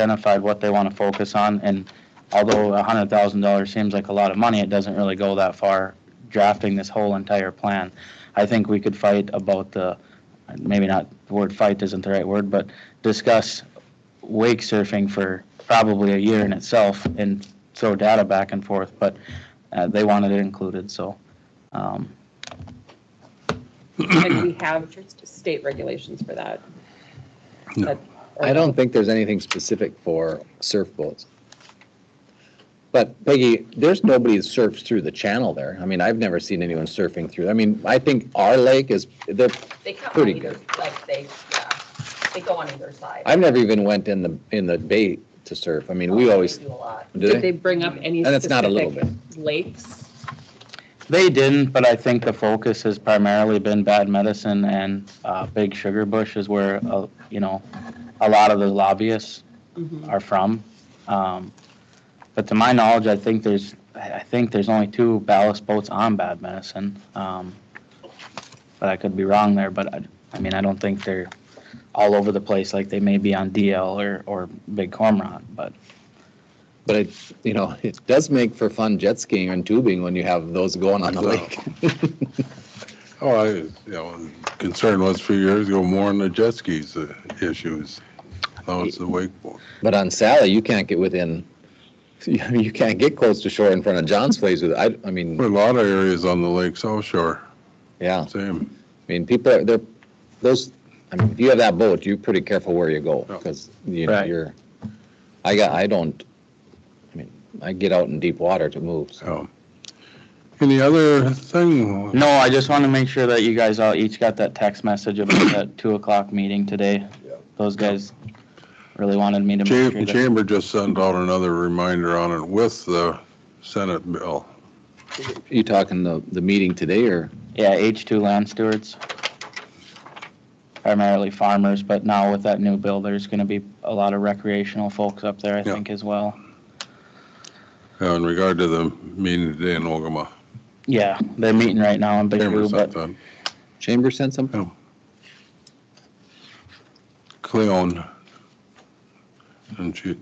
identified what they want to focus on, and although a hundred thousand dollars seems like a lot of money, it doesn't really go that far drafting this whole entire plan. I think we could fight about the, maybe not, the word fight isn't the right word, but discuss wake surfing for probably a year in itself and throw data back and forth, but uh, they wanted it included, so. um, And we have state regulations for that. No. That- or- I don't think there's anything specific for surf boats. But Peggy, there's nobody that surfs through the channel there. I mean, I've never seen anyone surfing through. I mean, I think our lake is, they're, They come on Pretty either, like, they, yeah, they go on either side. I've never even went in the, in the bay to surf. I mean, we They always, do a lot. do Did they they? bring up any And it's not a little specific lakes? They didn't, but I think the focus has primarily been bad medicine and uh, Big Sugar Bush is where, uh, you know, a lot of the lobbyists are from. Um, But to my knowledge, I think there's, I I think there's only two ballast boats on bad medicine. Um, But I could be wrong there, but I, I mean, I don't think they're all over the place like they may be on DL or, or Big Cormorant, but But it, you know, it does make for fun jet skiing and tubing when you have those going on the lake. Oh, I, you know, concern was a few years ago, more on the jet skis uh, issues. Now it's the wakeboard. But on Sally, you can't get within, you can't get close to shore in front of John's place with, I, I A mean, lot of areas on the lake south shore, yeah. same. I mean, people are, they're, those, I mean, if you have that boat, you're pretty careful where you go, Yeah. because you, Right. you're, I got, I don't, I mean, I get out in deep water to move, so. So. Any other thing? No, I just want to make sure that you guys all each got that text message about that two o'clock meeting today. Those guys really wanted me to make Cha- sure that. Chamber just sent out another reminder on it with the Senate bill. You talking the, the meeting today, or? Yeah, H two land stewards. Primarily farmers, but now with that new bill, there's going to be a lot of recreational folks up there, I Yeah. think, as well. Uh, In regard to the meeting today in Ogama. Yeah, they're meeting right now in Big Chamber Blue, sent but that. Chamber sent something? Cleon. And she,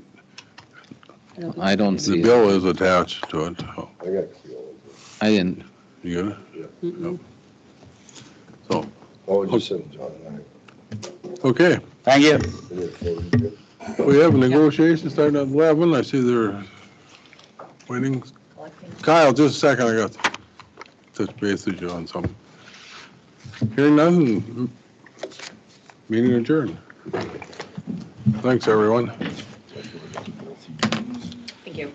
Mm-hmm. I don't the see, it. bill is attached to it. Oh, I got Cleo. I didn't, You got it? Mm-mm. So, Oh, just sent John and okay. thank you. I. We had four, We we had have negotiations starting at 11. I see they're waiting. Kyle, just a second, I got to touch base with you on something. Hearing nothing, meeting adjourned. Thanks, everyone. Thank you.